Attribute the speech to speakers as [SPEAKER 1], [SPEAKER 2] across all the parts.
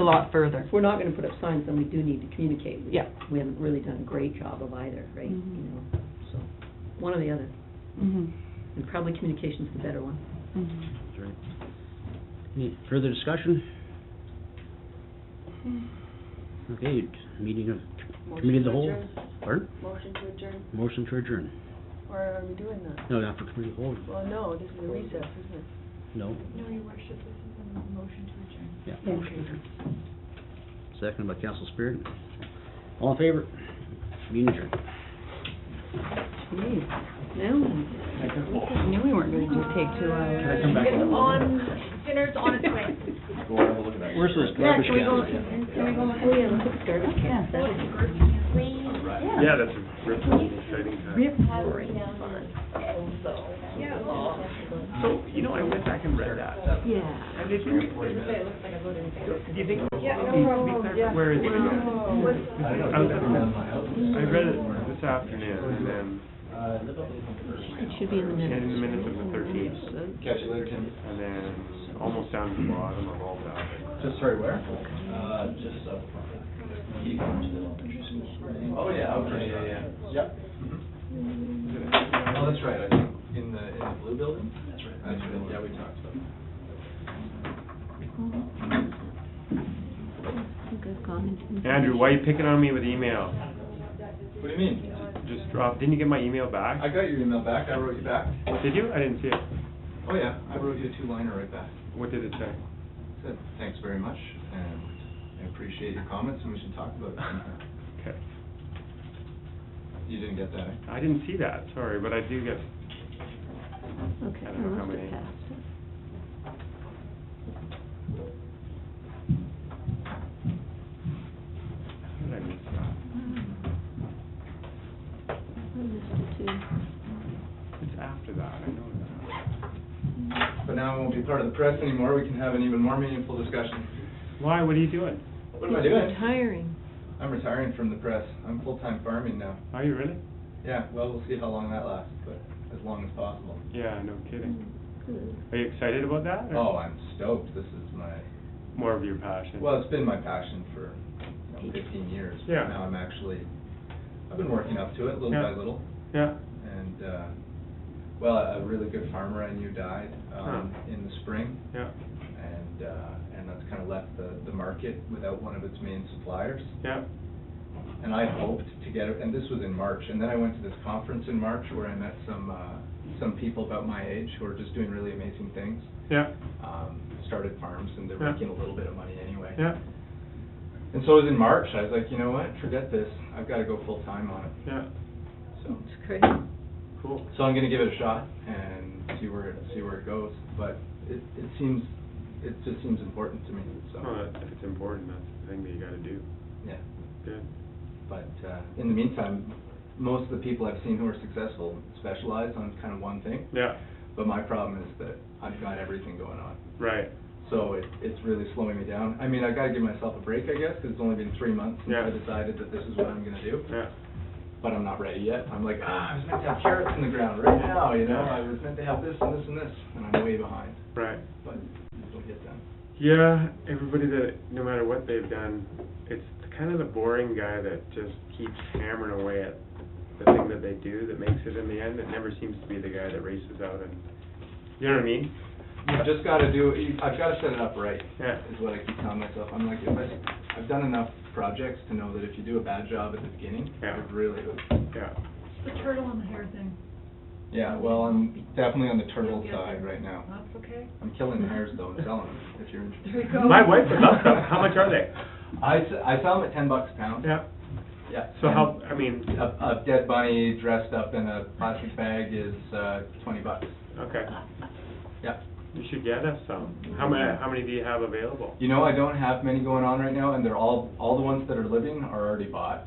[SPEAKER 1] a lot further.
[SPEAKER 2] If we're not gonna put up signs, then we do need to communicate. We-
[SPEAKER 1] Yeah.
[SPEAKER 2] We haven't really done a great job of either, right? You
[SPEAKER 3] Mhm.
[SPEAKER 2] know, so, one or the other,
[SPEAKER 3] Mhm.
[SPEAKER 2] and probably communication's the better one.
[SPEAKER 3] Mhm.
[SPEAKER 4] That's right. Any further discussion? Okay, meeting of committee of the whole.
[SPEAKER 5] Motion to
[SPEAKER 4] Pardon?
[SPEAKER 5] Motion to adjourn,
[SPEAKER 4] Motion to adjourn.
[SPEAKER 5] or are we doing that?
[SPEAKER 4] No, not for committee of the whole.
[SPEAKER 5] Well, no, this is a recess, isn't it?
[SPEAKER 4] No,
[SPEAKER 6] No, Your Worship, this is a motion to adjourn.
[SPEAKER 4] yeah, motion to adjourn. Second by Council Spirit. All in favor? Meeting adjourned.
[SPEAKER 2] Jeez, now,
[SPEAKER 3] I knew we weren't going to take two hours.
[SPEAKER 7] Can I come back?
[SPEAKER 6] It's on, dinner's on its way.
[SPEAKER 7] Go have a look at that.
[SPEAKER 4] Where's those
[SPEAKER 7] Yeah,
[SPEAKER 4] garbage
[SPEAKER 7] can we go-
[SPEAKER 4] cans?
[SPEAKER 7] can we go
[SPEAKER 2] oh yeah, look at the garbage
[SPEAKER 3] Yeah.
[SPEAKER 2] cans, that is
[SPEAKER 7] Yeah, that's a rip, exciting time.
[SPEAKER 2] rip roaring fun.
[SPEAKER 7] So, you know, I went back and read that.
[SPEAKER 2] Yeah.
[SPEAKER 7] And did you? Do you think? Yeah, Where is it? I was- I read it this afternoon and then,
[SPEAKER 2] It should be in the
[SPEAKER 7] and
[SPEAKER 2] minutes.
[SPEAKER 7] in the minutes of the thirteenth,
[SPEAKER 8] Catch you later, Tim.
[SPEAKER 7] and then almost down to the bottom of all that.
[SPEAKER 8] Just, sorry, where? Uh, just up. Oh, yeah, okay, yeah, yeah. Yep. Oh, that's right, I think, in the, in the blue building? That's right. That's right, yeah, we talked about that.
[SPEAKER 2] Mm-hmm. I think I've gone into-
[SPEAKER 7] Andrew, why are you picking on me with email?
[SPEAKER 8] What do you mean?
[SPEAKER 7] Just drop, didn't you get my email
[SPEAKER 8] I
[SPEAKER 7] back?
[SPEAKER 8] got your email back, I wrote you back.
[SPEAKER 7] Did you? I didn't see it.
[SPEAKER 8] Oh, yeah, I wrote you a two-liner right back.
[SPEAKER 7] What did it say?
[SPEAKER 8] Said, thanks very much, and I appreciate your comments, and we should talk about it. sometime."
[SPEAKER 7] Okay.
[SPEAKER 8] You didn't get that, eh?
[SPEAKER 7] I didn't see that, sorry, but I do get,
[SPEAKER 2] Okay,
[SPEAKER 7] I
[SPEAKER 2] I
[SPEAKER 7] don't know how
[SPEAKER 2] must have
[SPEAKER 7] many.
[SPEAKER 2] passed it.
[SPEAKER 7] how did I miss that?
[SPEAKER 2] I missed it too.
[SPEAKER 7] It's after that, I know that.
[SPEAKER 8] But now it won't be part of the press anymore, we can have an even more meaningful discussion.
[SPEAKER 7] Why, what are you doing?
[SPEAKER 8] What am I
[SPEAKER 2] He's
[SPEAKER 8] doing?
[SPEAKER 2] retiring.
[SPEAKER 8] I'm retiring from the press, I'm full-time farming now.
[SPEAKER 7] Are you really?
[SPEAKER 8] Yeah, well, we'll see how long that lasts, but as long as possible.
[SPEAKER 7] Yeah, no kidding.
[SPEAKER 2] Good.
[SPEAKER 7] Are you excited about that? or
[SPEAKER 8] Oh, I'm stoked, this is my,
[SPEAKER 7] More of your passion?
[SPEAKER 8] well, it's been my passion for, you know, fifteen years. but
[SPEAKER 7] Yeah.
[SPEAKER 8] Now I'm actually, I've been working up to it little by
[SPEAKER 7] Yeah.
[SPEAKER 8] little,
[SPEAKER 7] Yeah,
[SPEAKER 8] and, uh, well, a a really good farmer I knew died, um,
[SPEAKER 7] Huh.
[SPEAKER 8] in the spring,
[SPEAKER 7] yeah,
[SPEAKER 8] and, uh, and that's kind of left the, the market without one of its main suppliers.
[SPEAKER 7] yeah,
[SPEAKER 8] and I hoped to get, and this was in March, and then I went to this conference in March where I met some, uh, some people about my age who are just doing really amazing things.
[SPEAKER 7] yeah,
[SPEAKER 8] Um, started farms and they're
[SPEAKER 7] Yeah.
[SPEAKER 8] making a little bit of money anyway.
[SPEAKER 7] yeah,
[SPEAKER 8] And so it was in March, I was like, you know what, forget this, I've gotta go full-time on it,
[SPEAKER 7] yeah,
[SPEAKER 2] Oh,
[SPEAKER 8] so.
[SPEAKER 2] It's crazy.
[SPEAKER 7] cool.
[SPEAKER 8] So I'm gonna give it a shot and see where, see where it goes, but it, it seems, it just seems important to me,
[SPEAKER 7] Well,
[SPEAKER 8] so,
[SPEAKER 7] if it's important, that's the thing that you gotta do.
[SPEAKER 8] yeah.
[SPEAKER 7] Good.
[SPEAKER 8] But uh, in the meantime, most of the people I've seen who are successful specialize on kind of one thing.
[SPEAKER 7] Yeah,
[SPEAKER 8] But my problem is that I've got everything going on.
[SPEAKER 7] right,
[SPEAKER 8] So it, it's really slowing me down. I mean, I've got to give myself a break, I guess, because it's only been three months since
[SPEAKER 7] Yeah.
[SPEAKER 8] I decided that this is what I'm going to do.
[SPEAKER 7] yeah,
[SPEAKER 8] But I'm not ready yet. I'm like, ah, I was meant to have carrots in the ground right now, you know? I was meant to have this and this and this, and I'm way behind.
[SPEAKER 7] right.
[SPEAKER 8] But it'll get done.
[SPEAKER 7] Yeah, everybody that, no matter what they've done, it's kind of the boring guy that just keeps hammering away at the thing that they do that makes it in the end. It never seems to be the guy that races out and, you know what I mean?
[SPEAKER 8] I've just got to do, I've got to set it up right.
[SPEAKER 7] Yeah.
[SPEAKER 8] Is what I keep telling myself. I'm like, if I, I've done enough projects to know that if you do a bad job at the beginning,
[SPEAKER 7] Yeah.
[SPEAKER 8] it really hurts.
[SPEAKER 7] Yeah,
[SPEAKER 6] It's the turtle and the hair thing.
[SPEAKER 8] Yeah, well, I'm definitely on the turtle side right now.
[SPEAKER 6] That's okay.
[SPEAKER 8] I'm killing the hares though and selling them, if you're interested.
[SPEAKER 6] There you go.
[SPEAKER 7] My wife would love them. How much are they?
[SPEAKER 8] I, s- I sell them at ten bucks a pound.
[SPEAKER 7] yeah.
[SPEAKER 8] Yeah.
[SPEAKER 7] So how, I mean,
[SPEAKER 8] A, a dead bunny dressed up in a plastic bag is, uh, twenty bucks.
[SPEAKER 7] okay,
[SPEAKER 8] Yeah.
[SPEAKER 7] you should get us some. How many, how many do you have available?
[SPEAKER 8] You know, I don't have many going on right now, and they're all, all the ones that are living are already bought.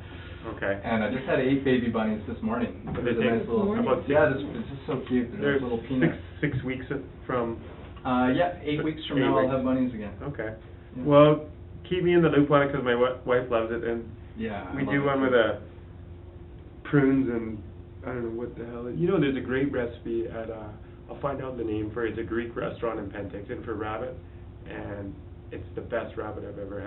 [SPEAKER 7] Okay.
[SPEAKER 8] And I just had eight baby bunnies this morning.
[SPEAKER 7] But
[SPEAKER 8] It
[SPEAKER 7] they
[SPEAKER 8] was a
[SPEAKER 7] take-
[SPEAKER 8] nice little-
[SPEAKER 7] Morning. about
[SPEAKER 8] Yeah, this, this is so cute, they're
[SPEAKER 7] There's
[SPEAKER 8] like little
[SPEAKER 7] six,
[SPEAKER 8] peanuts.
[SPEAKER 7] six weeks of- from,
[SPEAKER 8] Uh, yeah, eight weeks from
[SPEAKER 7] Eight
[SPEAKER 8] now I'll
[SPEAKER 7] weeks.
[SPEAKER 8] have bunnies again.
[SPEAKER 7] okay.
[SPEAKER 8] Yeah.
[SPEAKER 7] Well, keep me in the loop on it, because my wi- wife loves it, and
[SPEAKER 8] Yeah. I
[SPEAKER 7] we
[SPEAKER 8] love
[SPEAKER 7] do
[SPEAKER 8] it.
[SPEAKER 7] one with uh prunes and, I don't know what the hell, it- you know, there's a great recipe at, uh, I'll find out the name for it, it's a Greek restaurant in Penticton for rabbit, and it's the best rabbit I've ever had.